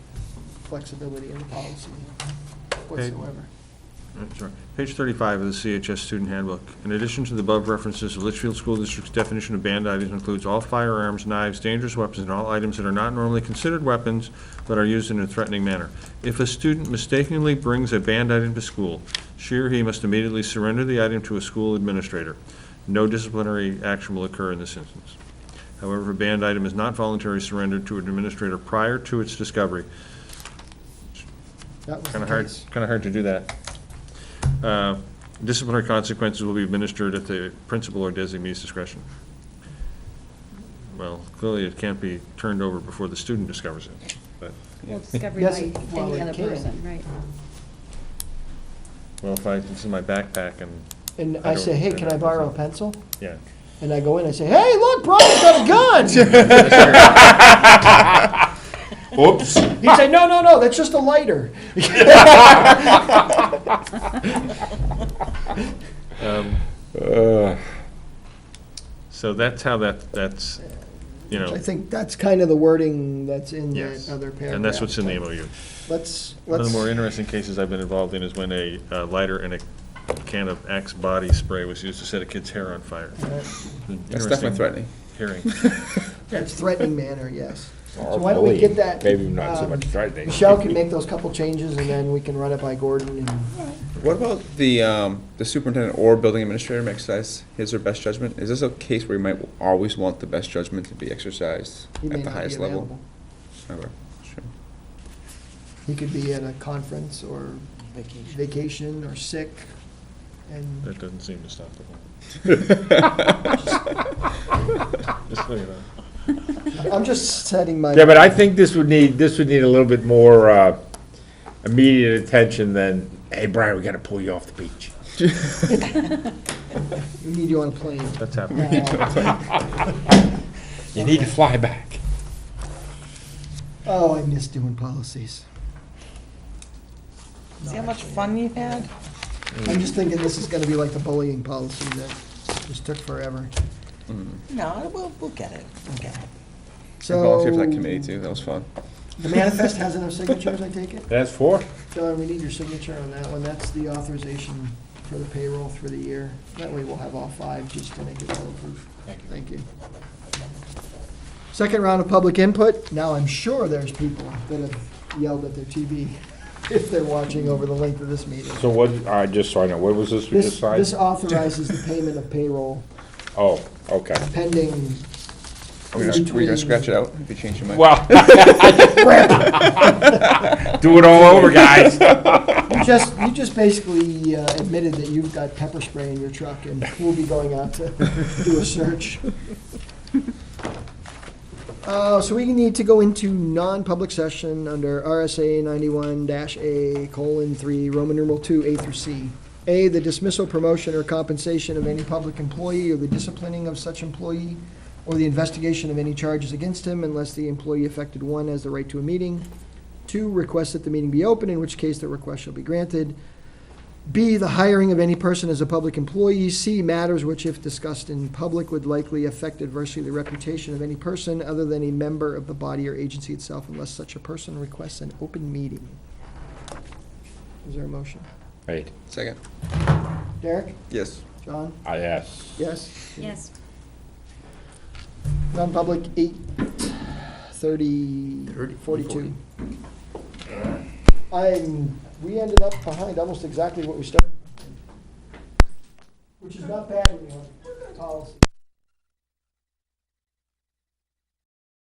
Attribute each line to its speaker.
Speaker 1: flexibility in the policy whatsoever.
Speaker 2: Sure. Page 35 of the CHS Student Handbook. In addition to the above references, the Litchfield School District's definition of banned items includes all firearms, knives, dangerous weapons, and all items that are not normally considered weapons but are used in a threatening manner. If a student mistakenly brings a banned item to school, she or he must immediately surrender the item to a school administrator. No disciplinary action will occur in this instance. However, if a banned item is not voluntarily surrendered to an administrator prior to its discovery,
Speaker 1: That was the
Speaker 2: Kind of hard,
Speaker 1: case.
Speaker 2: kind of hard to do that. Uh, Disciplinary consequences will be administered at the principal or designee's discretion. Well, clearly it can't be turned over before the student discovers it, but,
Speaker 3: Well, discovery
Speaker 1: Yes,
Speaker 3: by
Speaker 1: well,
Speaker 3: any
Speaker 1: it
Speaker 3: other
Speaker 1: can.
Speaker 3: person, right.
Speaker 2: well, if I, this is my backpack and,
Speaker 1: And
Speaker 2: I
Speaker 1: I say,
Speaker 2: don't-
Speaker 1: hey, can I borrow a pencil?
Speaker 2: yeah.
Speaker 1: And I go in, I say, hey, look, Brian's got a gun!
Speaker 4: Oops.
Speaker 1: He'd say, no, no, no, that's just a lighter.
Speaker 2: Um,
Speaker 4: Uh,
Speaker 2: So that's how that, that's, you know,
Speaker 1: I think that's kind of the wording that's in that
Speaker 2: yes.
Speaker 1: other paragraph.
Speaker 2: And that's what's in the MOU.
Speaker 1: Let's,
Speaker 2: One of
Speaker 1: let's,
Speaker 2: the more interesting cases I've been involved in is when a uh, lighter and a can of Axe body spray was used to set a kid's hair on fire.
Speaker 5: That's definitely
Speaker 2: Interesting
Speaker 5: threatening.
Speaker 2: Hearing.
Speaker 1: that's threatening manner, yes. So why don't we get that?
Speaker 4: Maybe not so
Speaker 1: um,
Speaker 4: much Friday.
Speaker 1: Michelle can make those couple changes and then we can run it by Gordon and
Speaker 5: What about the, um, the superintendent or building administrator may exercise his or best judgment? Is this a case where you might always want the best judgment to be exercised
Speaker 1: he may
Speaker 5: at the
Speaker 1: not be
Speaker 5: highest level?
Speaker 1: available.
Speaker 5: Okay, sure.
Speaker 1: He could be at a conference or vacation or sick and
Speaker 2: That doesn't seem to stop the whole. Just so you know.
Speaker 1: I'm just setting my.
Speaker 4: Yeah, but I think this would need, this would need a little bit more uh, immediate attention than, hey, Brian, we gotta pull you off the beach.
Speaker 1: We need you on a plane.
Speaker 2: That's happening.
Speaker 4: You need to fly back.
Speaker 1: Oh, I miss doing policies.
Speaker 6: See how much fun you've had?
Speaker 1: I'm just thinking this is gonna be like the bullying policy that just took forever.
Speaker 6: No, we'll, we'll get it, we'll get it.
Speaker 5: I
Speaker 1: So.
Speaker 5: volunteered for that committee too, that was fun.
Speaker 1: The manifest has enough signatures, I take it?
Speaker 4: That's four.
Speaker 1: John, we need your signature on that one. That's the authorization for the payroll for the year. That way we'll have all five just to make it all approved. Thank you. Thank you. Second round of public input. Now, I'm sure there's people that have yelled at their TV if they're watching over the length of this meeting.
Speaker 4: So what, I just, so I know, what was this we
Speaker 1: This,
Speaker 4: just signed?
Speaker 1: this authorizes the payment of payroll
Speaker 4: Oh, okay.
Speaker 1: pending.
Speaker 5: Are we gonna- were you gonna scratch it out if you change your mind?
Speaker 4: Well. Do it all over, guys.
Speaker 1: You just, you just basically uh, admitted that you've got pepper spray in your truck and we'll be going out to do a search. Uh, so we need to go into non-public session under RSA ninety-one dash A colon three, Roman numeral two, A through C. A, the dismissal, promotion, or compensation of any public employee or the disciplining of such employee or the investigation of any charges against him unless the employee affected one has the right to a meeting. Two, request that the meeting be open, in which case the request shall be granted. B, the hiring of any person as a public employee. C, matters which, if discussed in public, would likely affect adversely the reputation of any person other than a member of the body or agency itself unless such a person requests an open meeting. Is there a motion?
Speaker 4: Right,
Speaker 5: Second,
Speaker 1: Derek?
Speaker 5: yes.
Speaker 1: John?
Speaker 4: I asked.
Speaker 1: Yes?
Speaker 3: Yes.
Speaker 1: Non-public, eight thirty, forty-two. I'm, we ended up behind almost exactly what we started. Which is not bad when you have policy.